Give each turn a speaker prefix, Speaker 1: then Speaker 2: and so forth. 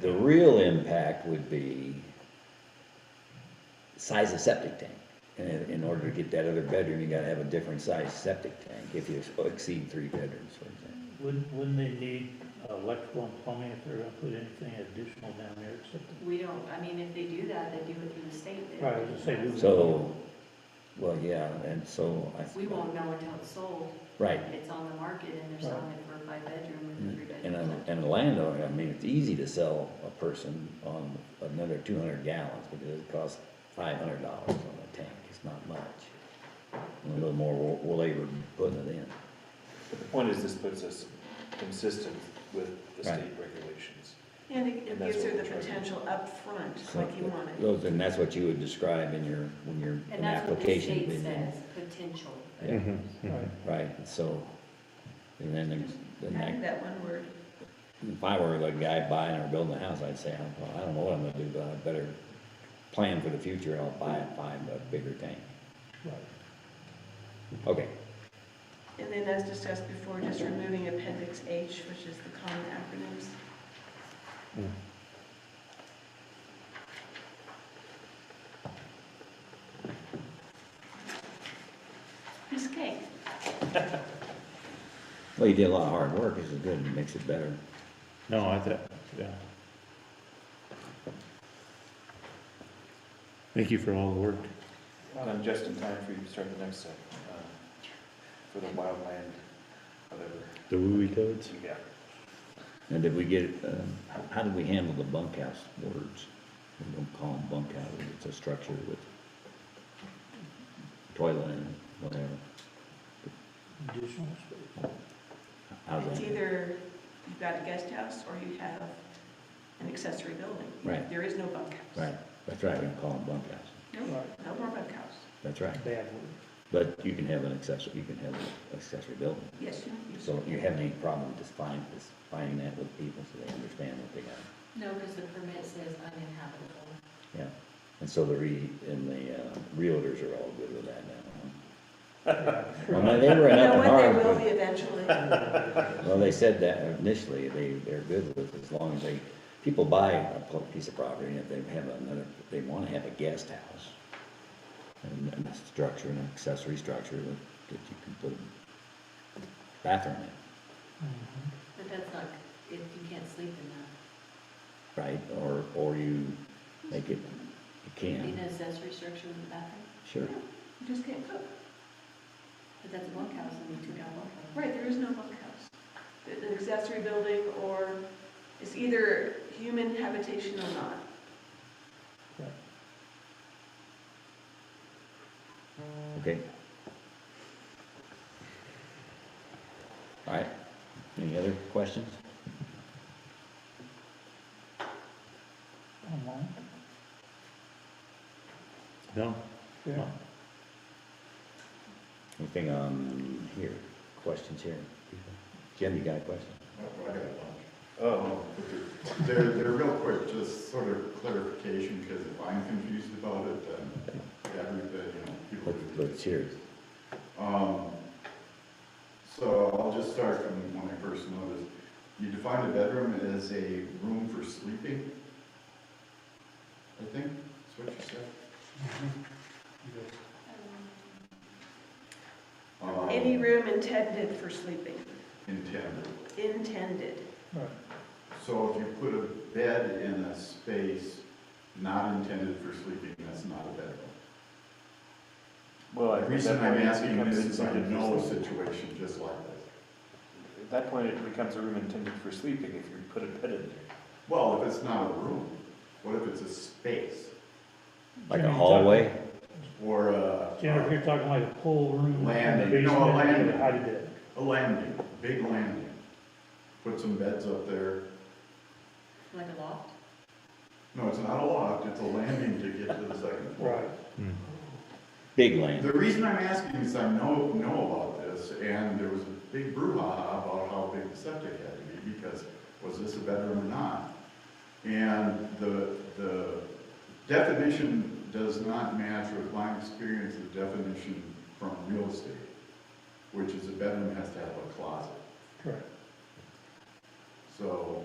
Speaker 1: the real impact would be size of septic tank. And in- in order to get that other bedroom, you gotta have a different size septic tank if you exceed three bedrooms, for example.
Speaker 2: Wouldn't, wouldn't they need electrical and plumbing if they're gonna put anything additional down there or something?
Speaker 3: We don't, I mean, if they do that, they do it through the state. They don't
Speaker 2: Right, I was gonna say,
Speaker 3: do it.
Speaker 2: we-
Speaker 1: So, well, yeah, and so I.
Speaker 3: We won't know until it's sold.
Speaker 1: Right,
Speaker 3: It's on the market and they're selling it for a five bedroom or three
Speaker 1: Mm-hmm. and
Speaker 3: bedroom.
Speaker 1: a, and a landowner, I mean, it's easy to sell a person on another two hundred gallons, because it costs five hundred dollars on a tank, it's not much. A little more wa- wa- labor putting it in.
Speaker 4: But the point is, this puts us consistent with the
Speaker 1: Right.
Speaker 4: state regulations.
Speaker 5: And it- it
Speaker 4: And that's
Speaker 5: gives
Speaker 4: what
Speaker 5: her the
Speaker 4: we're trying to do.
Speaker 5: potential upfront,
Speaker 1: So
Speaker 5: like you want it.
Speaker 1: Those, and that's what you would describe in your, when your,
Speaker 3: And
Speaker 1: an
Speaker 3: that's what the
Speaker 1: application.
Speaker 3: state
Speaker 1: would be.
Speaker 3: says, potential.
Speaker 1: Yeah,
Speaker 2: Right.
Speaker 1: Right, and so, and then, there's- then
Speaker 5: I
Speaker 1: that
Speaker 5: think that one word,
Speaker 1: If I were the guy buying or building a house, I'd say, "Oh, well, I don't know what I'm gonna do, but I better plan for the future, I'll buy, buy a bigger tank.
Speaker 2: Right.
Speaker 1: Okay,
Speaker 5: and then as discussed before, just removing appendix H, which is the common acronyms.
Speaker 3: Piece of cake.
Speaker 1: well, you did a lot of hard work, this is good, it makes it better.
Speaker 6: No, I think, yeah. Thank you for all the work.
Speaker 4: And I'm just in time for you to start the next set, um, for the wildland, whatever.
Speaker 6: The WUI codes?
Speaker 4: Yeah.
Speaker 1: And did we get, um, how- how did we handle the bunkhouse words? We don't call them bunkhouses, it's a structure with toilet and whatever,
Speaker 2: Additional space.
Speaker 1: how's
Speaker 5: It's
Speaker 1: that?
Speaker 5: either you've got a guest house or you have an accessory building.
Speaker 1: Right.
Speaker 5: There is no bunkhouse.
Speaker 1: Right, that's right, we don't call them bunkhouses,
Speaker 5: No, no more bunkhouse.
Speaker 1: that's right,
Speaker 2: Bad word.
Speaker 1: but you can have an accessory, you can have an accessory building.
Speaker 5: Yes, you. you-
Speaker 1: So you have any problem just find, just finding that with people so they understand what they got?
Speaker 3: No, because the permit says uninhabitable.
Speaker 1: Yeah. And so the re, and the uh, realtors are all good with that now. huh? Well, they were
Speaker 5: You
Speaker 1: in
Speaker 5: know
Speaker 1: Upton
Speaker 5: what, there
Speaker 1: Harbor,
Speaker 5: will be
Speaker 1: but-
Speaker 5: eventually.
Speaker 1: Well, they said that initially, they, they're good with it as long as they, people buy a pl- piece of property and if they have another, if they wanna have a guest house. And and a structure, an accessory structure that, that you can put a bathroom in,
Speaker 2: Mm-hmm.
Speaker 3: But that's not, if you can't sleep in
Speaker 1: right? Or, or you make it, you
Speaker 3: that, be
Speaker 1: can,
Speaker 3: an accessory structure with a bathroom,
Speaker 1: sure.
Speaker 5: You just can't cook.
Speaker 3: but that's a bunkhouse and we took out bunkhouse.
Speaker 5: Right, there is no bunkhouse. An accessory building or it's either human habitation or not.
Speaker 1: Okay. All right, any other questions?
Speaker 2: Online?
Speaker 6: No?
Speaker 2: Yeah.
Speaker 1: Anything on here, questions here? Jim, you got a question?
Speaker 7: Oh, they're, they're real quick, just sort of clarification, because if I'm confused about it, then everybody, you know, people.
Speaker 1: Let's, let's hear it.
Speaker 7: Um, so I'll just start from when I first noticed. You define a bedroom as a room for sleeping? I think, that's what you said. Um,
Speaker 5: Any room intended for sleeping,
Speaker 7: Intended.
Speaker 5: intended.
Speaker 2: Right.
Speaker 7: So if you put a bed in a space not intended for sleeping, that's not a bedroom.
Speaker 4: Well, I
Speaker 7: The
Speaker 4: think
Speaker 7: reason
Speaker 4: that
Speaker 7: I'm
Speaker 4: point it
Speaker 7: asking
Speaker 4: becomes
Speaker 7: this is I
Speaker 4: intended for
Speaker 7: know a
Speaker 4: sleep.
Speaker 7: situation just like this.
Speaker 4: At that point, it becomes a room intended for sleeping if you put a bed in there.
Speaker 7: Well, if it's not a room, what if it's a space
Speaker 1: Like
Speaker 2: Jim,
Speaker 1: a
Speaker 2: you're
Speaker 1: hallway?
Speaker 7: or a,
Speaker 2: talking- Jennifer, you're talking like a whole room.
Speaker 7: Landing.
Speaker 2: in the
Speaker 7: No, a
Speaker 2: basement,
Speaker 7: landing.
Speaker 2: How did that?
Speaker 7: a landing, big landing? Put some beds up there.
Speaker 3: Like a loft?
Speaker 7: No, it's not a loft, it's a landing to get to the second floor.
Speaker 2: Right.
Speaker 6: Hmm.
Speaker 1: Big land,
Speaker 7: The reason I'm asking is I know, know about this, and there was a big brouhaha about how big the septic had to be, because was this a bedroom or not? And the, the definition does not match with my experience of definition from real estate, which is a bedroom has to have a closet.
Speaker 2: Correct.
Speaker 7: So